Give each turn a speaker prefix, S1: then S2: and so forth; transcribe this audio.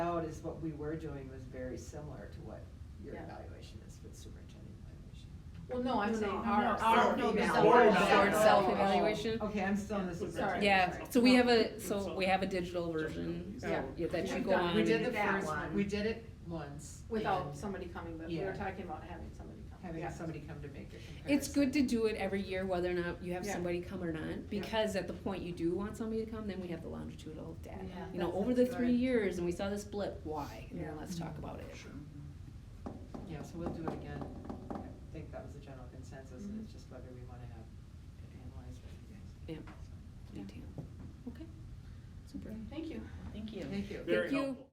S1: is what we were doing was very similar to what your
S2: Yeah.
S1: evaluation is for the superintendent evaluation.
S2: Well, no, I'm
S3: No,
S2: saying
S3: no,
S2: our,
S3: no,
S2: our,
S3: no, the
S2: self-
S3: board
S2: board
S3: self-
S2: self-evaluation.
S1: Okay, I'm still in the
S3: Sorry.
S1: superintendent.
S4: Yeah,
S1: sorry.
S4: so we have a, so we have a digital version,
S2: Yeah.
S4: yeah, that you
S2: We've
S4: go
S2: done-
S4: on.
S1: We did the
S3: did that
S1: first one,
S3: one.
S1: we did it once.
S2: Without
S1: and
S2: somebody coming, but we
S1: Yeah.
S2: were talking about having somebody come.
S1: Having
S2: Yeah.
S1: somebody come to make a comparison.
S4: It's good to do it every year, whether or not you have
S2: Yeah.
S4: somebody come or not, because at the point you do want somebody to come, then we have the longitudinal data.
S2: Yeah,
S4: You know,
S2: that
S4: over the
S2: sounds
S4: three
S2: good.
S4: years, and we saw this blip, why? And then
S2: Yeah.
S4: let's talk about it.
S1: Yeah, so we'll do it again. I think that was the general consensus, and it's just whether we wanna have it analyzed by you guys.
S4: Yeah. Detail. Okay, super.
S2: Thank you.
S5: Thank you.
S1: Thank you.
S4: Thank you.